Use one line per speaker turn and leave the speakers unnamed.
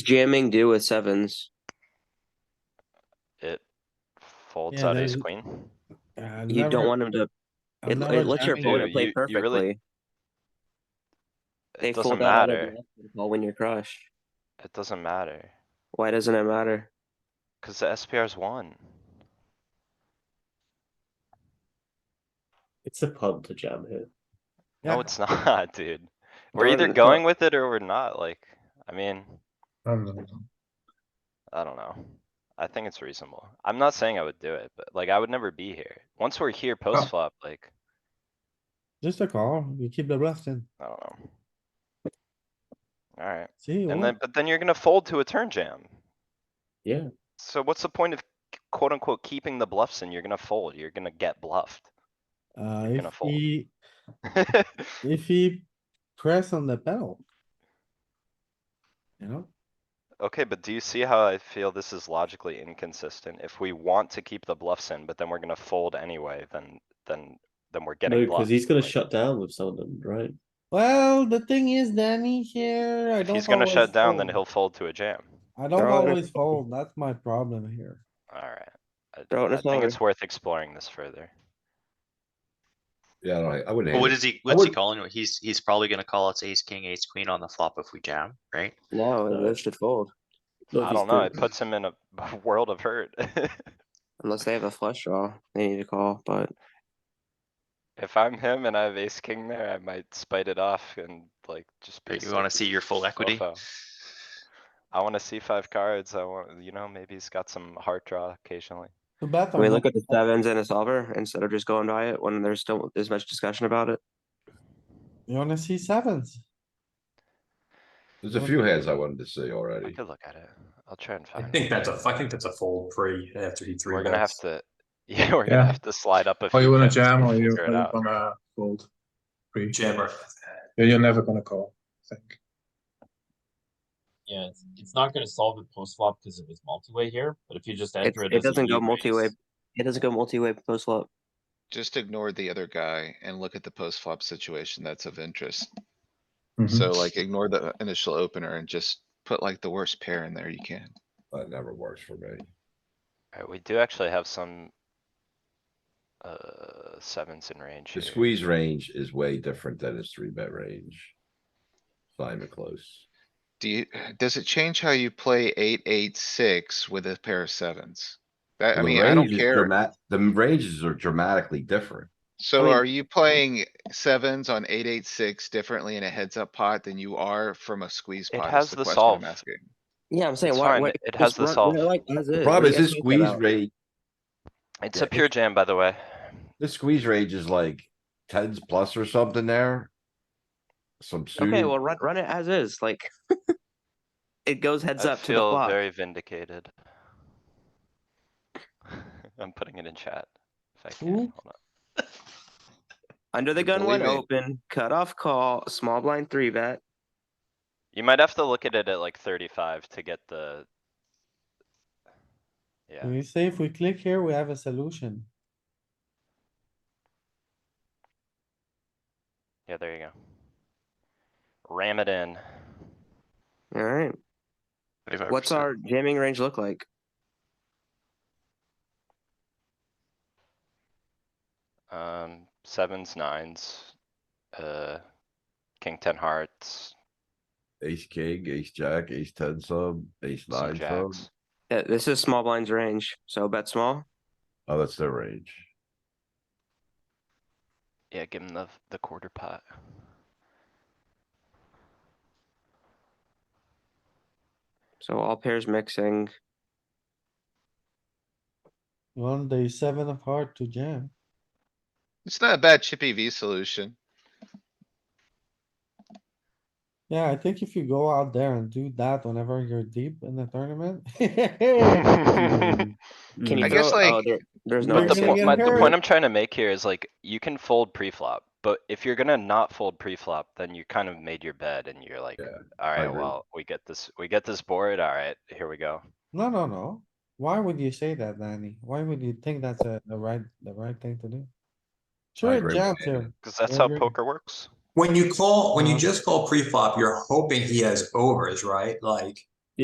jamming do with sevens.
It folds
Yeah,
out ace
there's-
queen.
I've
You don't
never-
want him to,
I've
it
never
it lets your
jammed it.
opponent play
You- you really-
perfectly. They
It doesn't
fold out.
matter.
Well, when you're crushed,
It doesn't matter,
why doesn't it matter?
cuz the SPR's one.
It's a pub to jam here.
No,
Yeah.
it's not, dude. We're
Don't-
either
it's not-
going with it or we're not, like, I mean,
Um,
I don't know. I think it's reasonable. I'm not saying I would do it, but like, I would never be here. Once we're here post flop, like,
Just a call, you keep the bluff in,
I don't know. Alright,
see?
and
what?
then, but then you're gonna fold to a turn jam.
Yeah.
So what's the point of quote unquote keeping the bluffs in? You're gonna fold, you're gonna get bluffed.
Uh,
gonna
if
fold.
he, if he press on the pedal. You know,
Okay, but do you see how I feel this is logically inconsistent? If we want to keep the bluffs in, but then we're gonna fold anyway, then, then, then we're
No,
getting
because he's
bluffed.
gonna
like,
shut down with some of them, right?
well, the thing is Danny here, I
If
don't.
he's gonna
always
shut down, then
fold.
he'll fold to a jam.
I don't
They're all gonna-
always fold, that's my problem here.
Alright. I,
Throw it in
I
his
think
locker.
it's worth exploring this further.
Yeah, I don't- I wouldn't.
But
hate
What
it.
is he, what's he
would-
calling? He's, he's probably gonna call us ace, king, ace, queen on the flop if we jam, right?
No,
No.
those should fold
Not if
I
he's
don't know, it
doing-
puts him in a a world of hurt.
unless they have a flush draw. They need to call, but
If I'm him and I have ace king there, I might spite it off and like just be.
Right,
a
You wanna
sneaky
see your full equity?
fofo. I wanna see five cards, I want, you know, maybe he's got some heart draw occasionally.
Too bad
can we
I'm
look
not-
at the sevens and a solver instead of just going by it when there's still as much discussion about it?
You wanna see sevens?
There's a few hands I wanted to see already.
I could look at it, I'll try and
I
find.
think
it.
that's a, I think that's a fold pre after he three
We're gonna have
bets.
to, yeah, we're
Yeah.
gonna have to slide up a few.
Oh, you wanna
pips to
jam or you
figure
or
it
you
out.
wanna fold? Free.
Jammer.
You're you're never gonna call, I think.
Yeah, it's, it's not gonna solve it post flop because it was multi-way here, but if you just
It,
enter it.
it
as a
doesn't go
e-raise-
multi-way. It doesn't go multi-way post flop.
Just ignore the other guy and look at the post flop situation that's of interest.
Mhm.
So like ignore the initial opener and just put like the worst pair in there you can.
That never works for me.
Alright, we do actually have some. Uh, sevens in range
The
here.
squeeze range is way different than his three bet range. It's Not even close.
Do you, does it change how you play eight, eight, six with a pair of sevens? That, I
The
mean, I don't
range is
care.
dramat- The ranges are dramatically different.
I
So
mean-
are you playing sevens on eight, eight, six differently in a heads up pot than you are from a squeeze
It
pot? is
has
the
the
question I'm
solve.
asking.
Yeah, I'm saying
It's
why,
fine,
why
it- it
just
has the
run- run
solve.
it like as
The
is. What do
problem
you
is
guys
this
think
squeeze
about it?
rate,
It's
Yeah,
a pure jam, by the way.
this squeeze range is like tens plus or something there. Some
Okay, well,
suited,
run, run it as is, like. It goes heads
I
up to the
feel
flop.
very vindicated. I'm putting it in chat. If I can,
Ooh.
hold on.
Under the gun one
Believe me.
open, cut off call, small blind three bet.
You might have to look at it at like thirty-five to get the.
Can
Mm.
Yeah,
we say if we click here, we have a solution?
yeah, there you go. Ram it in.
Alright,
35%.
what's our jamming range look like?
Um, sevens, nines, uh, king ten hearts,
ace, king, ace, jack, ace, ten sub, ace,
some
nine sub.
jacks.
Uh, This is small blind's range, so bet small.
Oh, that's their range.
Yeah, give him the, the quarter pot.
So all pairs mixing.
You want the seven of heart to jam?
It's not a bad chippy V solution.
Yeah, I think if you go out there and do that whenever you're deep in the tournament. Mm,
Can you
I guess,
throw- oh,
like,
there- There's no.
But
But the
you're
point,
gonna
my,
get
the
hurt.
point I'm trying to make here is like, you can fold pre-flop, but if you're gonna not fold pre-flop, then you kind of made your bed and you're like,
Yeah,
alright,
agree.
well, we get this, we get this board, alright, here we go.
No, no, no. Why would you say that, Danny? Why would you think that's a, the right, the right thing to do? Sure,
agree
it
with
jams
Danny.
here.
Cause that's
I
how
agree.
poker works.
When you call, when you
Uh-huh.
just call pre-flop, you're hoping he has overs, right? Like,